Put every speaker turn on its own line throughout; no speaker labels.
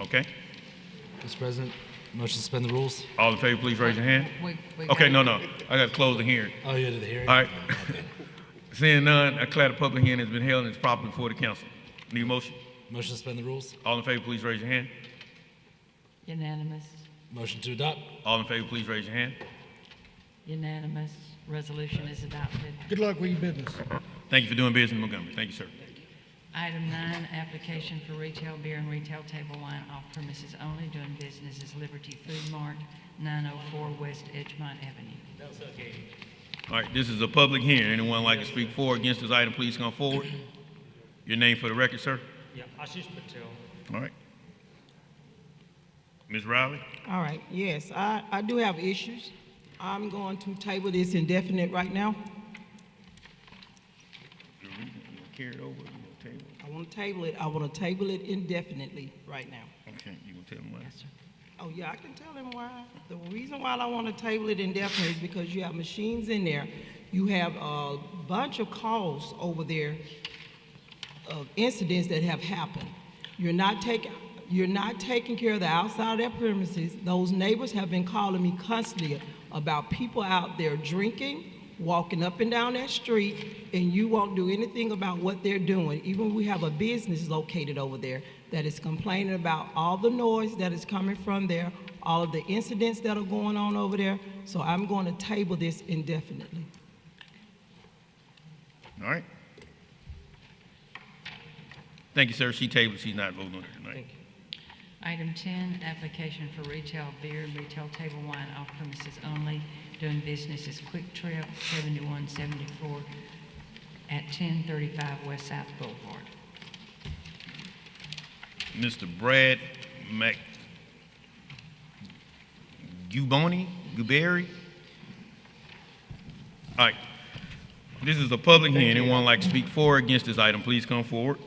Okay?
Mr. President, motion to suspend the rules?
All in favor, please raise your hand.
We- we
Okay,
got-
no, no, I got to close the hearing.
Oh, you're to the hearing?
All right. Seeing none, I declare the public hearing has been held and is properly before the council. Need a motion?
Motion to suspend the rules?
All in favor, please raise your hand.
Unanimous,
Motion to adopt?
All in favor, please raise your hand.
unanimous, resolution is adopted.
Good luck with your business.
Thank you for doing business in Montgomery. Thank you, sir.
Item nine, application for retail beer and retail table wine off premises only, doing business as Liberty Food Mart, 904 West Edgemont Avenue.
All right, this is a public hearing. Anyone like to speak for or against this item, please come forward. Your name for the record, sir.
Yeah, Ashish Patel.
All right. Ms. Riley?
All right, yes, I, I do have issues. I'm going to table this indefinite right now.
You gonna Carry it over, you gonna table it?
I want to table it, I want to table it indefinitely right now.
Okay, you gonna tell me what?
Yes, sir.
Oh, yeah, I can tell them why. The reason why I want to table it indefinitely is because you have machines in there. You have a bunch of calls over there of incidents that have happened. You're not taking, you're not taking care of the outside of their premises. Those neighbors have been calling me constantly about people out there drinking, walking up and down that street, and you won't do anything about what they're doing. Even we have a business located over there that is complaining about all the noise that is coming from there, all of the incidents that are going on over there. So I'm going to table this indefinitely.
All right. Thank you, sir. She tabled, she's not voting on it tonight.
Item 10, application for retail beer and retail table wine off premises only, doing business as Quick Trip, 7174 at 1035 West South Boulevard.
Mr. Brad Mac, Guboni, Guberry. All right. This is a public hearing. Anyone like to speak for or against this item, please come forward.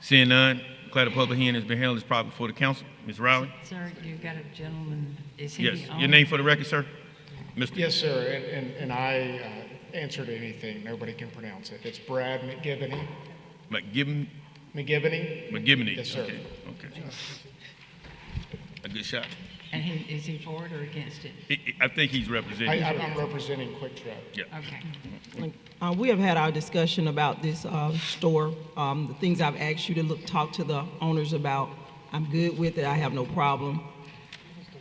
Seeing none, declare the public hearing has been held. It's proper before the council. Ms. Riley?
Sir, you've got a gentleman, is he the
Yes,
owner?
your name for the record, sir? Mr.
Yes, sir, and, and, and I uh, answered anything, nobody can pronounce it. It's Brad McGivney,
McGivney?
McGivney?
McGivney?
Yes, sir.
Okay, okay. A good shot.
And he, is he for it or against it?
I- I I think he's
I,
representing.
I'm I'm representing Quick Trip.
Okay.
Uh, we have had our discussion about this uh, store, um, the things I've asked you to look, talk to the owners about. I'm good with it. I have no problem.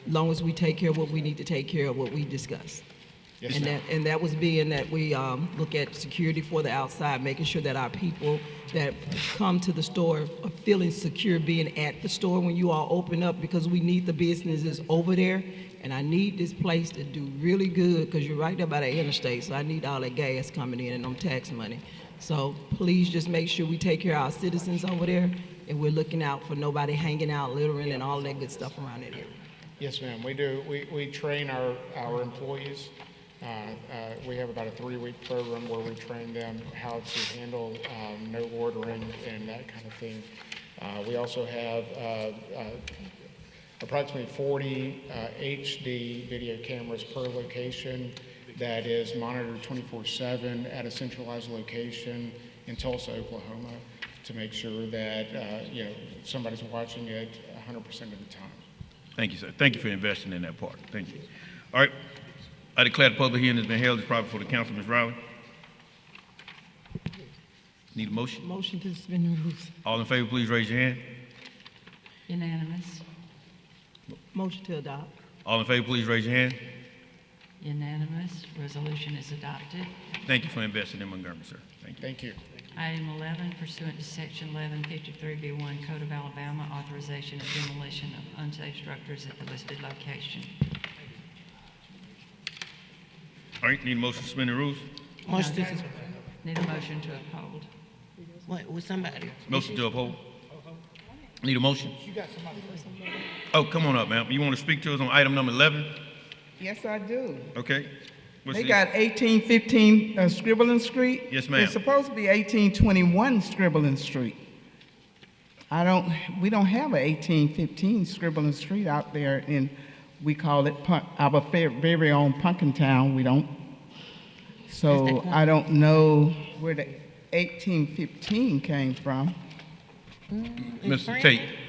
Long as we take care of what we need to take care of, what we discussed.
Yes,
and
ma'am.
that and that was being that we um, look at security for the outside, making sure that our people that come to the store are feeling secure being at the store when you all open up because we need the businesses over there. And I need this place to do really good because you're right there by the interstate, so I need all that gas coming in and them tax money. So please just make sure we take care of our citizens over there and we're looking out for nobody hanging out, littering, and all that good stuff around that area.
Yes, ma'am, we do, we, we train our, our employees. Uh, uh, We have about a three-week program where we train them how to handle um, no ordering and that kind of thing. Uh, We also have uh, uh, approximately 40 uh, HD video cameras per location that is monitored 24/7 at a centralized location in Tulsa, Oklahoma, to make sure that, uh, you know, somebody's watching it 100% of the time.
Thank you, sir. Thank you for investing in that part. Thank you. All right. I declare the public hearing has been held. It's proper for the council. Ms. Riley? Need a motion?
Motion to suspend the rules.
All in favor, please raise your hand.
Unanimous,
Motion to adopt.
All in favor, please raise your hand.
unanimous, resolution is adopted.
Thank you for investing in Montgomery, sir. Thank you.
Thank you.
Item 11, pursuant to Section 1153B1 Code of Alabama, authorization of demolition of unsafe structures at the listed location.
All right, need a motion to suspend the rules?
Motion to sus-
Need a motion to uphold.
What, with somebody?
Motion to uphold. Need a motion? Oh, come on up, ma'am. You want to speak to us on item number 11?
Yes, I do.
Okay. What's
They
the-
got eighteen fifteen uh, Scribbling Street.
Yes, ma'am.
It's supposed to be eighteen twenty-one Scribbling Street. I don't, we don't have a eighteen fifteen Scribbling Street out there in, we call it Pun- our fair- very own Punkin Town, we don't. So I don't know where the eighteen fifteen came from.
Mr. Tate,